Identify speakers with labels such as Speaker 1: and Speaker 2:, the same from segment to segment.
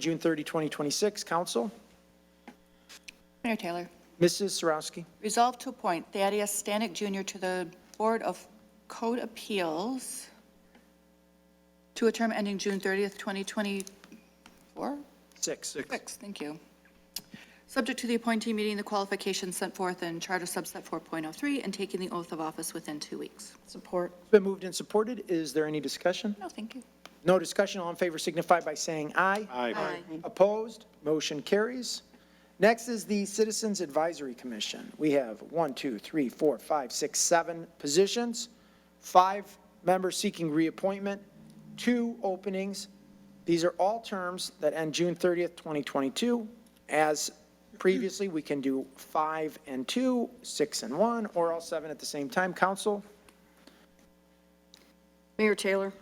Speaker 1: June 30, 2026, council.
Speaker 2: Mayor Taylor,
Speaker 1: Mrs. Sarowski.
Speaker 2: resolve to appoint Thaddeus Stanek Jr. to the Board of Code Appeals to a term ending June 30th, 2024?
Speaker 1: Six.
Speaker 2: Six, thank you. Subject to the appointee meeting the qualifications set forth in Charter subset 4.03 and taking the oath of office within two weeks.
Speaker 3: Support.
Speaker 1: It's Been moved and supported. Is there any discussion?
Speaker 2: No, thank you.
Speaker 1: No discussion. All in favor signify by saying aye.
Speaker 2: Aye.
Speaker 1: Opposed? Motion carries. Next is the Citizens Advisory Commission. We have one, two, three, four, five, six, seven positions, five members seeking reappointment, two openings. These are all terms that end June 30th, 2022. As previously, we can do five and two, six and one, or all seven at the same time. Council,
Speaker 3: Mayor Taylor,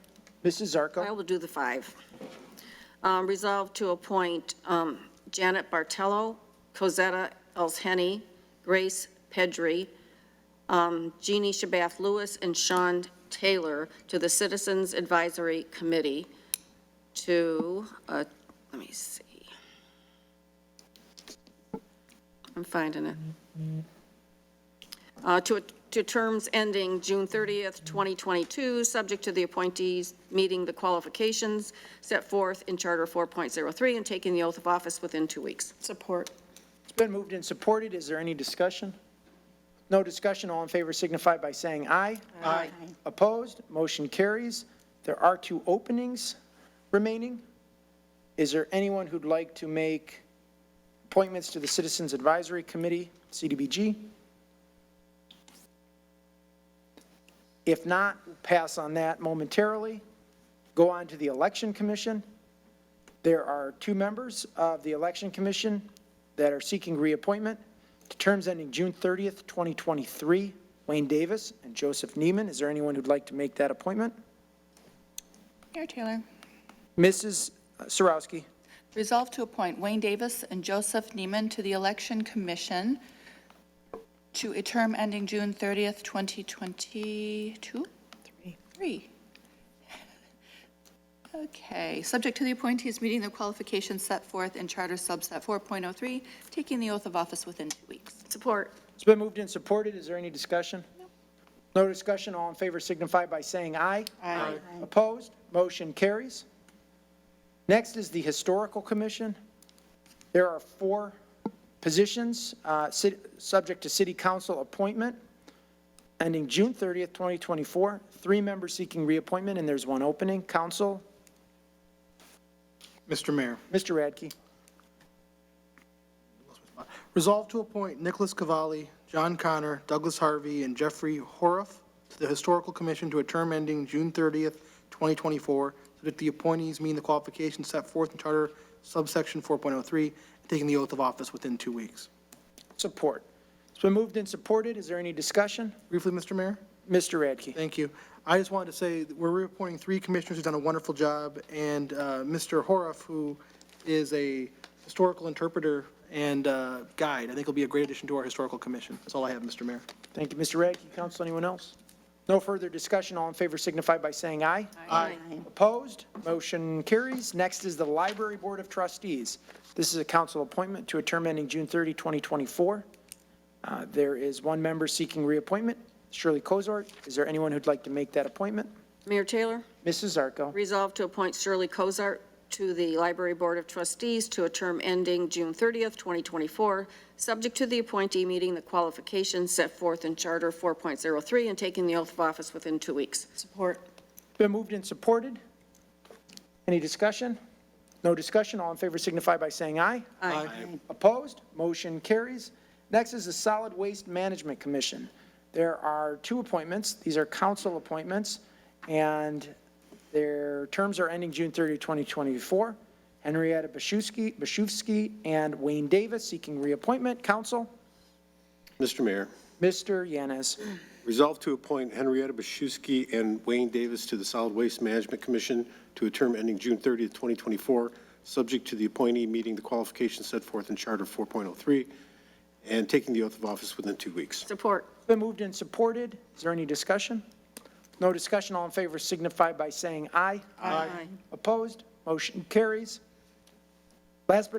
Speaker 1: Mrs.
Speaker 3: I
Speaker 1: Zarko.
Speaker 3: will do the five. Um, Resolve to appoint um, Janet Bartello, Cosetta Elsheny, Grace Pedri, um, Jeannie Shabath Lewis, and Sean Taylor to the Citizens Advisory Committee to, uh, let me see. I'm finding it. Uh, to, to terms ending June 30th, 2022, subject to the appointees meeting the qualifications set forth in Charter 4.03 and taking the oath of office within two weeks.
Speaker 4: Support.
Speaker 1: It's been moved and supported. Is there any discussion? No discussion. All in favor signify by saying aye. Aye. Opposed? Motion carries. There are two openings remaining. Is there anyone who'd like to make appointments to the Citizens Advisory Committee, CDBG? If not, pass on that momentarily. Go on to the Election Commission. There are two members of the Election Commission that are seeking reappointment to terms ending June 30th, 2023, Wayne Davis and Joseph Neiman. Is there anyone who'd like to make that appointment?
Speaker 2: Mayor Taylor,
Speaker 1: Mrs. Sarowski,
Speaker 2: resolve to appoint Wayne Davis and Joseph Neiman to the Election Commission to a term ending June 30th, 2022? Three. Okay, subject to the appointees meeting the qualifications set forth in Charter subset 4.03, taking the oath of office within two weeks.
Speaker 3: Support.
Speaker 1: it's been moved and supported. Is there any discussion? No discussion. All in favor signify by saying aye.
Speaker 2: Aye.
Speaker 1: Opposed? Motion carries. Next is the Historical Commission. There are four positions, uh, ci- subject to city council appointment, ending June 30th, 2024. Three members seeking reappointment, and there's one opening. Council,
Speaker 5: Mr. Mayor,
Speaker 1: Mr. Radke.
Speaker 5: resolve to appoint Nicholas Cavalli, John Connor, Douglas Harvey, and Jeffrey Horoff to the Historical Commission to a term ending June 30th, 2024, so that the appointees meet the qualifications set forth in Charter subsection 4.03, and taking the oath of office within two weeks.
Speaker 1: Support. It's been moved and supported. Is there any discussion?
Speaker 5: Briefly, Mr. Mayor?
Speaker 1: Mr. Radke.
Speaker 5: Thank you. I just wanted to say, that we're reappointing three commissioners who've done a wonderful job, and uh, Mr. Horoff, who is a historical interpreter and uh, guide, I think will be a great addition to our Historical Commission. That's all I have, Mr. Mayor.
Speaker 1: Thank you, Mr. Radke. Council, anyone else? No further discussion. All in favor signify by saying aye. Aye. Opposed? Motion carries. Next is the Library Board of Trustees. This is a council appointment to a term ending June 30, 2024. Uh, There is one member seeking reappointment, Shirley Kozart. Is there anyone who'd like to make that appointment?
Speaker 3: Mayor Taylor,
Speaker 1: Mrs. Zarko.
Speaker 3: resolve to appoint Shirley Cozart to the Library Board of Trustees to a term ending June 30th, 2024, subject to the appointee meeting the qualifications set forth in Charter 4.03 and taking the oath of office within two weeks.
Speaker 4: Support.
Speaker 1: Been moved and supported. Any discussion? No discussion. All in favor signify by saying aye.
Speaker 5: Aye.
Speaker 1: Opposed? Motion carries. Next is the Solid Waste Management Commission. There are two appointments. These are council appointments, and their terms are ending June 30, 2024. Henrietta Bashewski, Bashewski and Wayne Davis seeking reappointment. Council,
Speaker 6: Mr. Mayor,
Speaker 1: Mr. Yanez.
Speaker 6: resolve to appoint Henrietta Bashuski and Wayne Davis to the Solid Waste Management Commission to a term ending June 30th, 2024, subject to the appointee meeting the qualifications set forth in Charter 4.03 and taking the oath of office within two weeks.
Speaker 3: Support.
Speaker 1: Been moved and supported. Is there any discussion? No discussion. All in favor signify by saying aye.
Speaker 3: Aye.
Speaker 1: Opposed? Motion carries. Last but